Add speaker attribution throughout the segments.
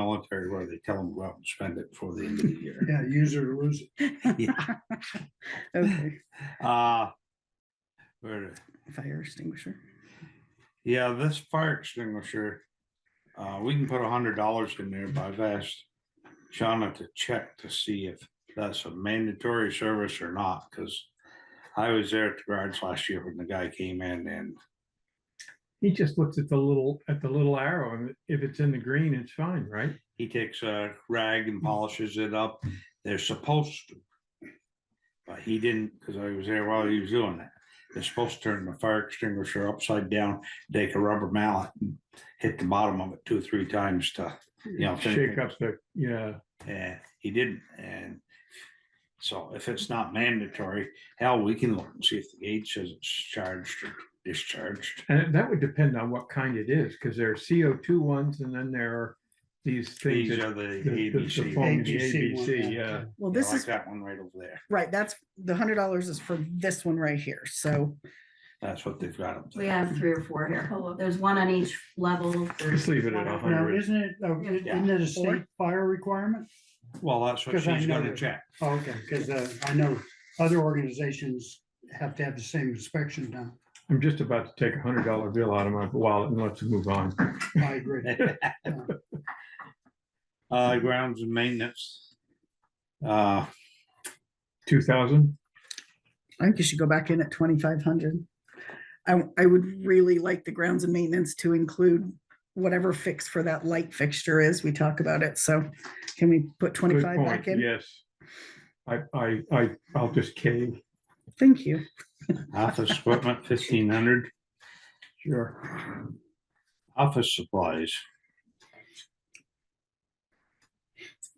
Speaker 1: military where they tell them go out and spend it before the end of the year.
Speaker 2: Yeah, use it or lose it.
Speaker 3: Okay,
Speaker 1: Uh, where-
Speaker 3: fire extinguisher.
Speaker 1: yeah, this fire extinguisher, uh, we can put a hundred dollars in there, but I've asked Shauna to check to see if that's a mandatory service or not, because I was there at the garage last year when the guy came in and
Speaker 4: He just looks at the little, at the little arrow and if it's in the green, it's fine, right?
Speaker 1: He takes a rag and polishes it up. They're supposed to. But he didn't, because I was there while he was doing that. They're supposed to turn the fire extinguisher upside down, take a rubber mallet, and hit the bottom of it two or three times to, you know. think-
Speaker 4: Shake up the, yeah,
Speaker 1: And he didn't, and so if it's not mandatory, hell, we can look and see if the gauge says it's charged or discharged.
Speaker 4: and that would depend on what kind it is, because there are CO two ones and then there are these things.
Speaker 1: These
Speaker 4: that-
Speaker 1: are the
Speaker 4: the- the- the
Speaker 1: ABC.
Speaker 4: phone,
Speaker 1: ones.
Speaker 4: the
Speaker 1: Yeah,
Speaker 2: ABC one,
Speaker 4: ABC,
Speaker 2: yeah.
Speaker 4: yeah.
Speaker 3: Well, this
Speaker 1: Like
Speaker 3: is,
Speaker 1: that one right over there.
Speaker 3: right, that's, the hundred dollars is for this one right here, so.
Speaker 1: That's what they've got up there.
Speaker 5: We have three or four here. There's one on each level.
Speaker 4: Just leave it at a
Speaker 2: Now,
Speaker 4: hundred.
Speaker 2: isn't it, uh, i-
Speaker 1: Yeah.
Speaker 2: isn't it a
Speaker 3: Or-
Speaker 2: state fire requirement?
Speaker 1: Well, that's what
Speaker 2: 'Cause I
Speaker 1: she's gonna
Speaker 2: noticed-
Speaker 1: check.
Speaker 2: Oh, Okay, because I know other organizations have to have the same inspection done.
Speaker 4: I'm just about to take a hundred dollar bill out of my wallet and let's move on.
Speaker 2: I agree.
Speaker 1: Uh, grounds and maintenance. Uh,
Speaker 4: Two thousand?
Speaker 3: I think you should go back in at twenty-five hundred. I, I would really like the grounds and maintenance to include whatever fix for that light fixture is. We talk about it, so can we put
Speaker 4: Good
Speaker 3: twenty-five
Speaker 4: point,
Speaker 3: back in?
Speaker 4: yes. I, I, I, I'll just cave.
Speaker 3: Thank you.
Speaker 1: office equipment fifteen hundred,
Speaker 4: Sure.
Speaker 1: office supplies.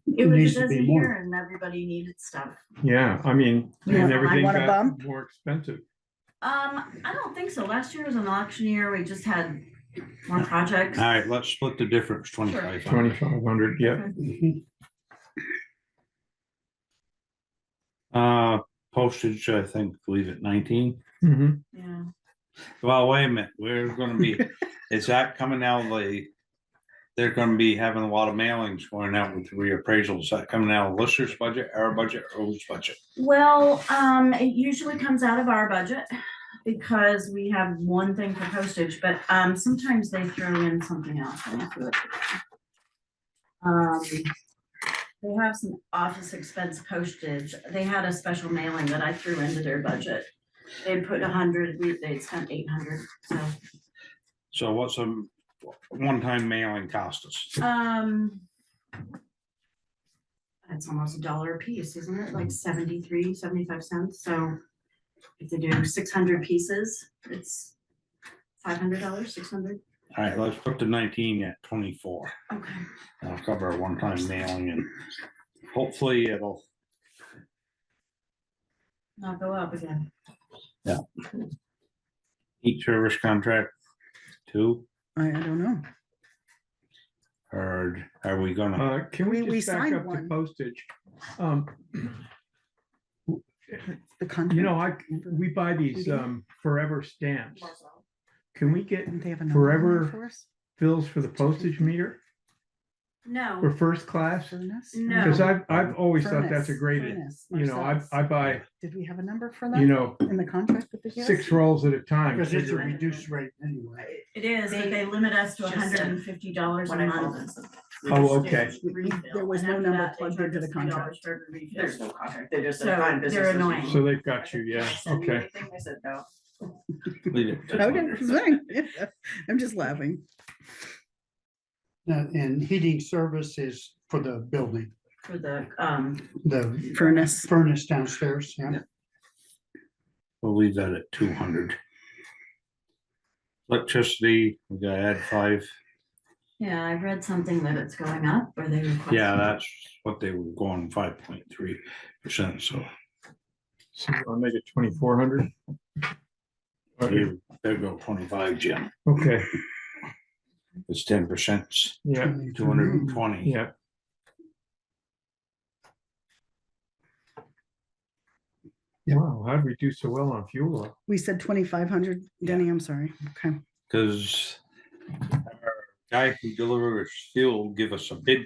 Speaker 2: It
Speaker 5: It was
Speaker 2: needs to
Speaker 5: just a
Speaker 2: be more.
Speaker 5: year and everybody needed stuff.
Speaker 4: Yeah, I mean,
Speaker 5: You
Speaker 4: and
Speaker 5: want-
Speaker 4: everything
Speaker 3: want a
Speaker 4: got
Speaker 3: bump?
Speaker 4: more expensive.
Speaker 5: Um, I don't think so. Last year was an auction year. We just had more projects.
Speaker 1: All
Speaker 2: Ah.
Speaker 1: right, let's split the difference, twenty-five hundred.
Speaker 4: Twenty-five hundred, yeah.
Speaker 2: Mhm.
Speaker 1: Uh, postage, I think, leave it nineteen.
Speaker 4: Mhm.
Speaker 5: Yeah.
Speaker 1: Well, wait a minute, we're gonna be, is that coming out of the? They're gonna be having a lot of mailings going out with reappraisals. Is that coming out of Lister's budget, our budget, or whose budget?
Speaker 5: Well, um, it usually comes out of our budget because we have one thing for postage, but, um, sometimes they throw in something else. Let me see what- Um, they have some office expense postage. They had a special mailing that I threw into their budget. They put a hundred, we, they spent eight hundred, so.
Speaker 1: So what's a one-time mailing cost us?
Speaker 5: Um. It's almost a dollar a piece, isn't it? Like 73, 75 cents, so. If they do six hundred pieces, it's five hundred dollars, six hundred.
Speaker 1: All right, let's put the nineteen at twenty-four.
Speaker 5: Okay.
Speaker 1: I'll cover a one-time mailing and hopefully it'll,
Speaker 5: I'll go up again.
Speaker 1: each service contract two,
Speaker 3: I, I don't know.
Speaker 1: or are we gonna,
Speaker 4: Uh, can
Speaker 3: We-
Speaker 4: we
Speaker 3: we
Speaker 4: just back
Speaker 3: signed
Speaker 4: up to
Speaker 3: one.
Speaker 4: postage? Um,
Speaker 3: The contract.
Speaker 4: you know, I, we buy these, um, forever stamps. Can we get
Speaker 3: Didn't they have a number on there
Speaker 4: forever-
Speaker 3: for us?
Speaker 4: bills for the postage meter for
Speaker 5: No,
Speaker 4: first class?
Speaker 3: Furnace?
Speaker 5: No.
Speaker 4: Cause I've, I've always thought that's a
Speaker 3: Furnace,
Speaker 4: great,
Speaker 3: furnace,
Speaker 4: you know, I,
Speaker 3: Marcellus.
Speaker 4: I buy,
Speaker 3: Did we have a number for
Speaker 4: you
Speaker 3: that
Speaker 4: know,
Speaker 3: in the contract that they gave us?
Speaker 4: six rolls at a time.
Speaker 2: Because it's a
Speaker 4: figuring-
Speaker 2: reduced rate anyway.
Speaker 5: it is, but they limit us to
Speaker 6: Just
Speaker 5: hundred and fifty dollars a
Speaker 6: what I call
Speaker 5: month.
Speaker 4: Oh, okay.
Speaker 3: We- we- there was no number plugged into the contract.
Speaker 6: There's no contract. They're just.
Speaker 5: So they're annoying.
Speaker 4: So they've got you, yeah, okay.
Speaker 6: I said no.
Speaker 1: leave it to
Speaker 3: Okay,
Speaker 1: 100?
Speaker 3: fine. Yeah, I'm just laughing.
Speaker 2: Now, And heating service is for the building,
Speaker 5: For the, um,
Speaker 2: the
Speaker 3: Furnace.
Speaker 2: furnace downstairs, yeah.
Speaker 1: we'll leave that at two hundred. Electricity, we gotta add five.
Speaker 5: yeah, I read something that it's going up or they request.
Speaker 1: Yeah, that's what they were going five point three percent, so
Speaker 4: So I'll make it twenty-four hundred.
Speaker 1: you better go twenty-five, Jim.
Speaker 4: Okay,
Speaker 1: It's ten percent,
Speaker 4: yeah,
Speaker 1: two hundred
Speaker 3: Mm-hmm.
Speaker 1: and twenty.
Speaker 4: yeah. Wow, how'd we do so well on fuel? oil?
Speaker 3: We said twenty-five hundred, Denny, I'm sorry. Okay.
Speaker 1: Cause our guy who delivers fuel give us a bid